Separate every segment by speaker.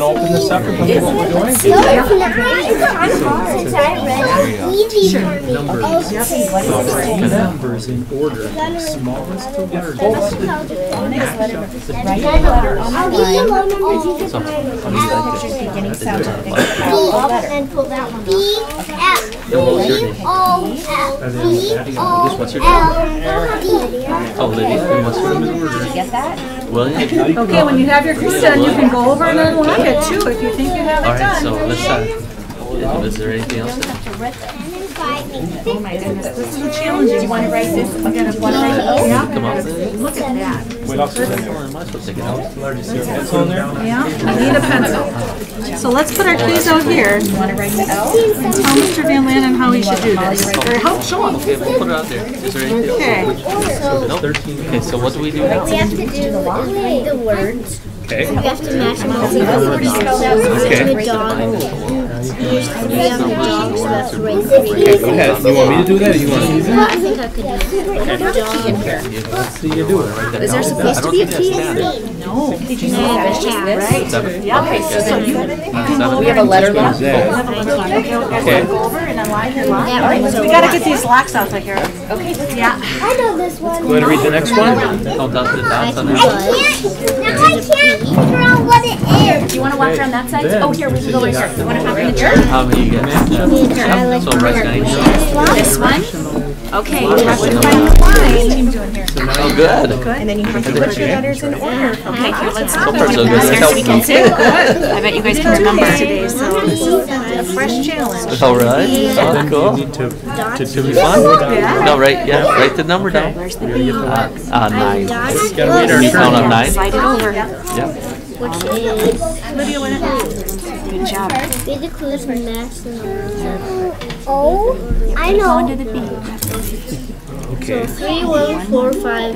Speaker 1: Open this up and look at what we're doing.
Speaker 2: No, it's not. It's on since I read easy for me. Oh, Numbers.
Speaker 1: The numbers in order, smallest to largest.
Speaker 2: I'll give you low numbers. You can find
Speaker 3: beginning sound to the beginning.
Speaker 2: And pull that one. B F B O L B O L E. D.
Speaker 4: Oh, Lydia, and what's your name?
Speaker 3: Get that?
Speaker 4: William?
Speaker 5: Okay, when you have your clue done, you can go over and unlock it too, if you think you have
Speaker 4: All
Speaker 5: it
Speaker 4: right, so
Speaker 5: done.
Speaker 4: let's, uh, is there anything else? that-
Speaker 3: Oh my goodness, this is challenging. Do you want to write this? I'm gonna want to write this.
Speaker 4: Come up with it?
Speaker 3: Look at that.
Speaker 1: What else is in there?
Speaker 4: Am I supposed to take it out?
Speaker 1: Largest area. Pencil in there?
Speaker 5: Yeah, I need a pencil. So let's put our clues out here.
Speaker 3: Want to write it out?
Speaker 5: Tell Mr. Van Landen how he should do this, or help show him.
Speaker 4: Okay, we'll put it out there. Is there anything else?
Speaker 5: Okay.
Speaker 4: Nope. Okay, so what do we do now?
Speaker 2: We have to do the words.
Speaker 4: Okay.
Speaker 2: We have to match them all. Okay.
Speaker 6: Go ahead. You want me to do that or you want to?
Speaker 2: I think I could do it.
Speaker 3: Is there supposed to be a key? No. Did you see that? It's just this?
Speaker 4: Seven?
Speaker 3: Yeah, okay, so so you
Speaker 4: Seven?
Speaker 3: We have a letter left.
Speaker 6: That.
Speaker 3: Okay. Go over and unlock your lock. All right, so
Speaker 5: We gotta get these locks off of here.
Speaker 3: Okay, yeah.
Speaker 2: I know this one.
Speaker 6: Want to read the next one?
Speaker 4: Count out the dots on
Speaker 2: I
Speaker 4: that.
Speaker 2: can't, now I can't figure out what it is.
Speaker 3: Do you want to walk around that side? Oh, here, we can go right here. You want to hop in the chair?
Speaker 4: How many you get? Yep, So right now,
Speaker 3: This one? Okay, you have to find the line.
Speaker 4: oh, good.
Speaker 3: And then you have to put your letters in order. Okay, here, let's go.
Speaker 4: far, so good.
Speaker 3: Here, so we can see. I bet you guys can remember today, so this is a fresh challenge.
Speaker 4: All right, oh, cool.
Speaker 1: Need to, to do it.
Speaker 4: One? No, right, yeah, write the number down. Uh, uh, nine.
Speaker 2: Gotta
Speaker 4: Can you count on nine?
Speaker 3: Slide it over.
Speaker 4: Yep.
Speaker 3: Good job.
Speaker 2: Read the clues for next. Oh, I know.
Speaker 6: Okay.
Speaker 2: Three, one, four, five.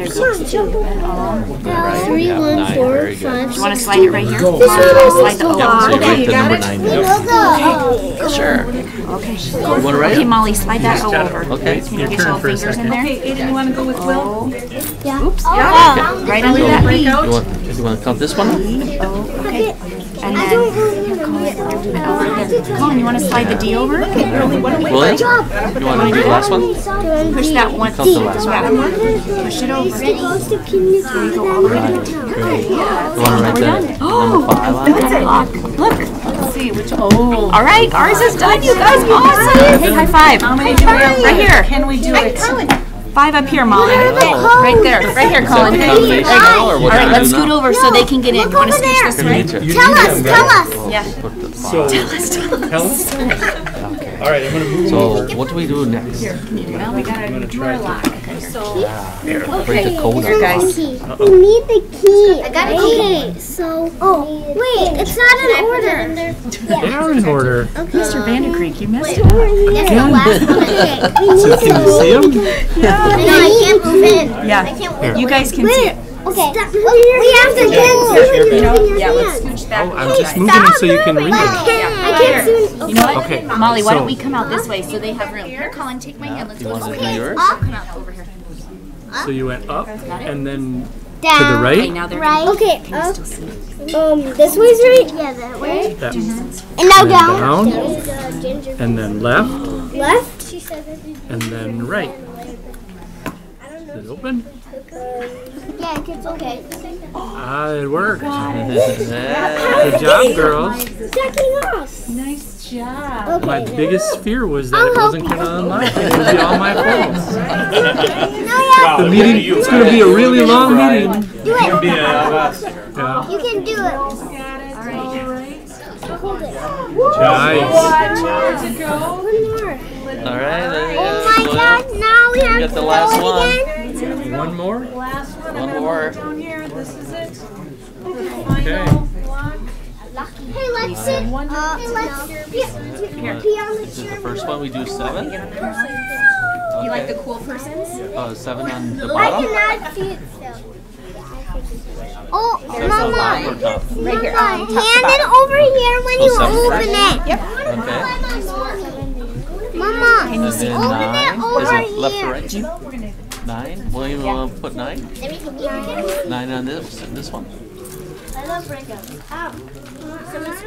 Speaker 2: Three,
Speaker 4: Yeah,
Speaker 2: one,
Speaker 4: nine,
Speaker 2: four,
Speaker 4: very good.
Speaker 2: five.
Speaker 3: You want to slide it right here?
Speaker 2: This one
Speaker 3: Slide
Speaker 2: is
Speaker 3: the
Speaker 2: the
Speaker 4: Yep,
Speaker 3: open.
Speaker 4: so
Speaker 2: one.
Speaker 4: you write the number nine
Speaker 2: We
Speaker 4: down.
Speaker 2: know the. uh,
Speaker 4: Sure.
Speaker 3: Okay.
Speaker 4: You wanna write
Speaker 3: Okay,
Speaker 4: it?
Speaker 3: Molly, slide that O over.
Speaker 4: Okay.
Speaker 3: You know, get your little fingers in there.
Speaker 5: Okay, Aiden, you wanna go with Will?
Speaker 2: Yeah.
Speaker 3: Oh, Right under that B.
Speaker 4: You want, you want to count this one? out?
Speaker 3: Okay. And
Speaker 2: I
Speaker 3: then,
Speaker 2: don't really remember it. I have to do
Speaker 3: Colin, you want to slide the D over?
Speaker 4: William? You want to do the last one?
Speaker 2: it.
Speaker 3: Push that one.
Speaker 4: Count the last
Speaker 3: Yeah.
Speaker 4: one.
Speaker 3: Push it over.
Speaker 2: Ready? Goes to community.
Speaker 4: You want to write the number five on? it?
Speaker 3: Look. Let's see which. Oh. All right, ours is done. You guys, awesome. Hey, high five.
Speaker 5: How many do we have?
Speaker 3: Right here.
Speaker 5: Can we do it?
Speaker 3: Five up here, Molly.
Speaker 4: Oh.
Speaker 3: Right there. Right here,
Speaker 4: Is that
Speaker 3: Colin.
Speaker 4: the
Speaker 3: All
Speaker 4: combination now, or what do
Speaker 3: right,
Speaker 4: we
Speaker 3: let's
Speaker 4: do
Speaker 3: scoot
Speaker 4: now?
Speaker 3: over so they can get in. You want to scooch this way?
Speaker 4: Community.
Speaker 2: Tell us, tell us.
Speaker 4: Put the five.
Speaker 6: So. Tell us. All right, I'm gonna move them over.
Speaker 4: So what do we do next?
Speaker 3: Well, we got to do our lock.
Speaker 4: Break the code or
Speaker 2: Guys, we need the key. I got a key. Okay, so. Oh, wait, it's not in order.
Speaker 1: They are in order.
Speaker 3: Mr. Vandercreek, you missed it.
Speaker 2: It's the last one. Okay, we need
Speaker 1: Can you see them?
Speaker 2: No, I can't move in. I
Speaker 3: Yeah.
Speaker 2: can't move
Speaker 3: You guys can see it.
Speaker 2: Okay. We have to get you in
Speaker 3: Yeah,
Speaker 2: your
Speaker 3: let's
Speaker 2: hand.
Speaker 5: Oh,
Speaker 3: scooch back.
Speaker 1: I'm just moving it so you can read it.
Speaker 4: Oh,
Speaker 2: I can't see.
Speaker 3: You know what?
Speaker 1: Okay,
Speaker 3: Molly, why
Speaker 1: so-
Speaker 3: don't we come out this way so they have room? Here, Colin, take my hand. Let's
Speaker 4: You
Speaker 3: go.
Speaker 4: want to do Oh, yours?
Speaker 3: Come out over here.
Speaker 1: So you went up and then
Speaker 2: Down.
Speaker 1: to the
Speaker 3: Okay,
Speaker 1: right?
Speaker 3: now they're
Speaker 2: Right. Okay. Up. Um, this way's right. Yeah, that way.
Speaker 1: That-
Speaker 2: And now
Speaker 1: down.
Speaker 2: down.
Speaker 1: And then left
Speaker 2: Left. She said that
Speaker 1: and then right. Is it open?
Speaker 2: Yeah, it's okay.
Speaker 1: Ah, it worked.
Speaker 4: Yeah.
Speaker 1: Good job, girls.
Speaker 2: Second us.
Speaker 5: Nice job.
Speaker 2: Okay.
Speaker 1: My biggest fear was that it
Speaker 2: I'll
Speaker 1: wasn't
Speaker 2: help
Speaker 1: gonna unlock. It would be all my fault.
Speaker 2: No,
Speaker 1: The meeting, it's gonna be a really long meeting.
Speaker 2: yeah, do it.
Speaker 1: Yeah.
Speaker 2: You can do it. All right. Hold it.
Speaker 1: Nice.
Speaker 2: One more.
Speaker 4: All right. there you
Speaker 2: Oh
Speaker 4: go.
Speaker 2: my God! Now we have
Speaker 4: got
Speaker 2: to
Speaker 4: the
Speaker 2: do
Speaker 4: last
Speaker 2: it
Speaker 4: one.
Speaker 2: again.
Speaker 1: One more?
Speaker 5: Last one,
Speaker 4: One
Speaker 5: I'm gonna
Speaker 4: more.
Speaker 5: look down here, this is it.
Speaker 1: Okay.
Speaker 5: Final lock.
Speaker 2: Hey, let's sit. Uh, hey, let's be, be on the
Speaker 4: This is the
Speaker 2: chair.
Speaker 4: first one. We do seven.
Speaker 3: You like the cool persons?
Speaker 4: Uh, seven on the
Speaker 2: I
Speaker 4: bottom.
Speaker 2: cannot see it. So. Oh,
Speaker 4: On the bottom
Speaker 2: mama,
Speaker 4: or top?
Speaker 2: right here. Mama, hand it over here when you
Speaker 4: seven.
Speaker 2: open it.
Speaker 4: Okay.
Speaker 2: Mama,
Speaker 4: And then
Speaker 2: open
Speaker 4: nine.
Speaker 2: it
Speaker 4: Is
Speaker 2: over
Speaker 4: it left
Speaker 2: here.
Speaker 4: or right? uh, Nine. William, you want to put nine? Nine on this this one.
Speaker 2: I love rhythm. Um, so it's